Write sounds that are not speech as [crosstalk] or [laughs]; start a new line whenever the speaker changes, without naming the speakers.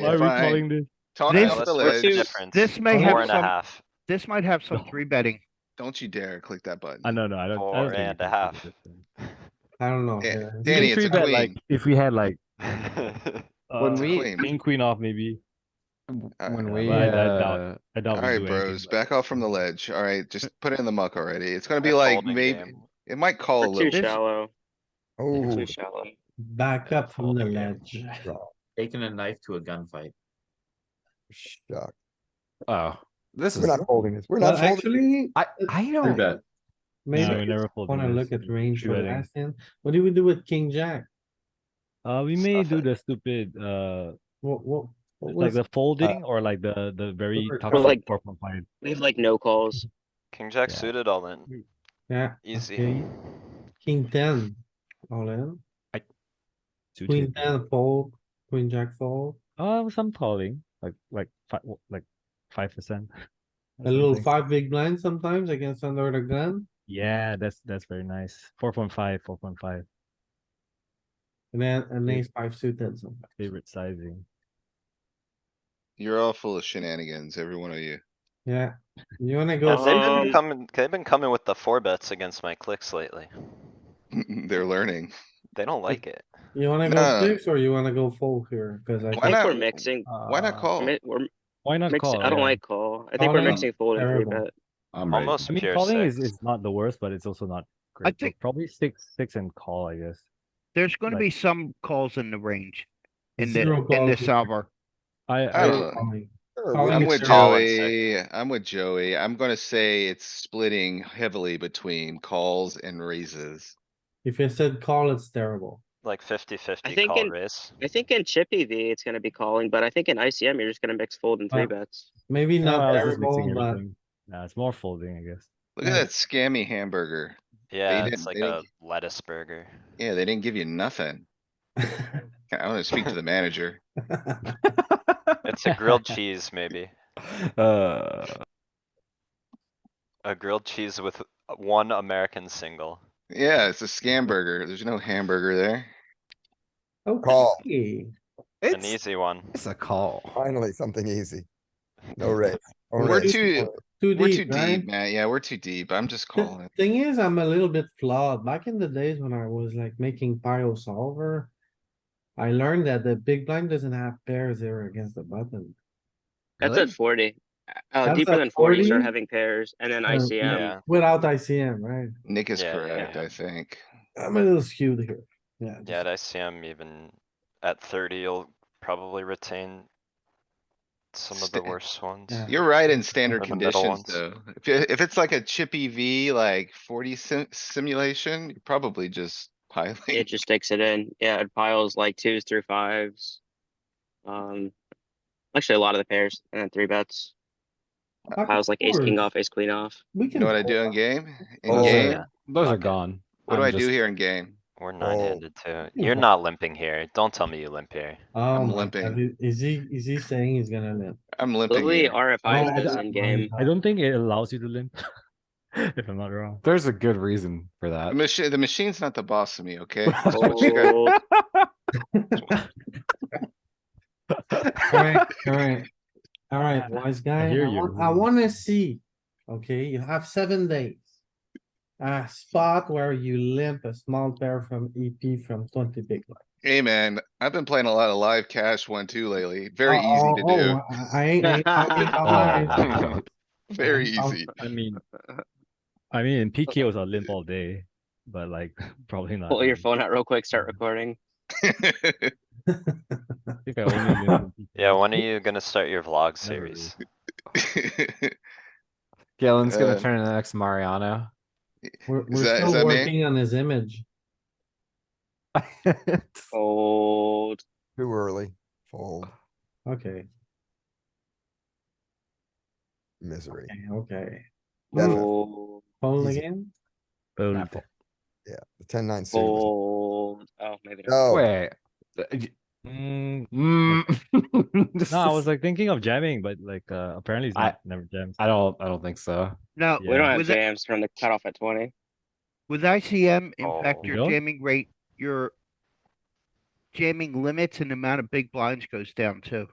Why are we
Fine.
calling this?
Talk
This-
off the
Let's do-
ledge.
This may
Four
have
and a
some,
[laughs]
half.
this might have some three betting.
Don't you dare click that button.
I don't know. I don't. I
Four
don't think
and
we
a
can do
half.
this thing.
I don't know.
Yeah,
You can
Eh, Danny, it's a
three bet, like,
queen.
If we had like
When
uh,
we-
king queen off, maybe
Uh,
When we,
I- I doubt-
uh,
I doubt. we
Alright,
do anything,
bros,
but-
back off from the ledge. Alright, just put it in the muck already. It's gonna be like maybe, it might call a
We're too
little.
shallow. We're
Oh,
Too shallow.
Back up from the ledge.
Taking a knife to a gunfight.
shock.
oh, this is,
We're not holding this. We're
Well,
not holding.
actually,
I, I don't,
No, we
maybe
never
I
fold
wanna
this.
look at range
Three
for
betting.
last hand. What do we do with king jack?
Uh, we may
Stuff
do
it.
the stupid, uh,
What, what? what
like
was-
the folding or like the, the very
Or
toxic
like-
four point five.
We have like no calls.
King jack
Yeah.
suited all in,
Yeah,
easy.
okay. king ten, all in,
suited.
queen ten fold, queen jack fold,
Uh, some calling, like, like, five, like, five percent. [laughs]
a little five big blind sometimes against under the gun.
Yeah, that's, that's very nice. Four point five, four point five,
And then an ace five suited sometimes.
favorite sizing.
You're all full of shenanigans, every one of you. [laughs]
Yeah, you wanna go?
They've
first?
been
Um,
coming, they've been coming with the four bets against my clicks lately.
They're learning.
They don't like it.
You wanna
No.
go six or you wanna go fold here? Cause
Why
I
I think
think
not?
we're mixing.
Why not
Uh,
call?
mi- We're
Why not
mixing,
call?
I don't
yeah.
like call. I think we're
Calling,
mixing fold and three
Oh, terrible.
bet.
I'm Almost
I mean,
pure
calling is,
six.
is not the worst, but it's also not great. So
think-
Probably six, six and call, I guess.
There's gonna
Like-
be some calls in the range. In the,
Zero
in
calls
this
here.
solver.
I,
I
I,
don't know.
calling.
Sure,
Calling
we're
I'm
it's
with
all in six.
Joey, I'm with Joey. I'm gonna say it's splitting heavily between calls and raises.
If you said call, it's terrible.
Like fifty fifty
think
call
in-
raise.
I think in Chippy V it's gonna be calling, but I think in ICM you're just gonna mix fold and
Uh,
three bets.
Maybe not
I was just
terrible,
mixing
but
everything. Nah, it's more folding, I guess.
Look at
Yeah.
that scammy hamburger.
Yeah,
didn't-
it's like
they
a
didn't-
lettuce burger.
Yeah, they didn't give you nothing.
[laughs]
I wanna speak to the manager.
It's a grilled cheese, maybe.
uh,
A grilled cheese with one American single.
Yeah, it's a scam burger. There's no hamburger there.
[laughs]
Call.
okay.
An
it's,
easy one.
it's a call.
Finally, something easy. No raise. No
We're
raise.
too,
Too
we're too
deep, right?
deep, man. Yeah, we're too deep. I'm just
The
calling.
Thing is, I'm a little bit flawed. Back in the days when I was like making pile solver. I learned that the big blind doesn't have pairs there against the button.
That's
Really?
at forty. Uh,
That's
deeper
at
than forty, you
40?
start having pairs and then
Uh,
ICM.
Yeah,
Without ICM, right?
Nick is
Yeah, yeah,
correct,
yeah.
I think.
I'm a little skewed here. Yeah.
yeah, at
just-
ICM even at thirty, you'll probably retain some of the
Sta-
worst ones.
Yeah.
You're right in standard
Or the middle
conditions
ones.
though. If, you- if it's like a chippy V, like forty sim- simulation, you're probably just piling.
It just takes it in. Yeah, it piles like twos through fives. Um, actually a lot of the pairs and then three bets.
Of
Piles like ace king
course.
off, ace queen off.
[laughs]
We
You
can.
know what I
fold
do in
up.
game? In
Oh,
game,
yeah. Those are gone.
what do
I'm
I do
just-
here in game?
We're
Oh.
nine handed too.
Yeah.
You're not limping here. Don't tell me you limp here. [laughs]
Oh, my
limping.
God, i- Is he, is he saying he's gonna limp?
I'm limping
Literally
here.
Oh,
RFI
I
is
don't- [laughs]
in game.
I don't think it allows you to limp. [laughs] If I'm not wrong.
There's a good reason for
The
that.
[laughs]
machine, the machine's not the boss of me, okay? Oh, That's what you guys-
Fold.
Alright,
[laughs]
alright. Alright, wise guy, I
hear you.
want, I wanna see, okay, you have seven days. A spot where you limp a small pair from EP from twenty big. blind.
Hey, man, I've been playing a lot of live cash one two lately. Very easy
Oh,
to
oh,
do.
oh, I- I ain't- I ain't
[laughs]
talking about mine.
Uh,
Very
I'm-
easy.
I mean, I mean, in PKOs, I limp all day, but like, [laughs] probably not. [laughs]
Pull your
now.
phone out real quick, start recording.
I think I only limp in
[laughs]
Yeah,
PKOs.
when are you gonna start your vlog
Never really.
series?
Galen's
Uh,
gonna turn into the next Mariano.
We're,
Is that- is
we're still
that me?
working on his image.
Fold.
Too early. Fold
Okay,
misery.
okay, okay.
That's-
Ooh,
Fold.
Fold
easy.
again?
Boom.
Yeah, the ten nine suit. was-
Fold. Oh, maybe not.
No,
Wait. uh, y-
Mm,
mm. [laughs] This
No, I
is-
was like thinking of jamming, but like, uh, apparently it's
I-
not, never jams.
I don't, I don't think so.
No,
We don't have
with, I-
jams from the cutoff at twenty.
with ICM
Oh.
impact
You
your
don't?
jamming rate, your jamming limits and the amount of big blinds goes down too.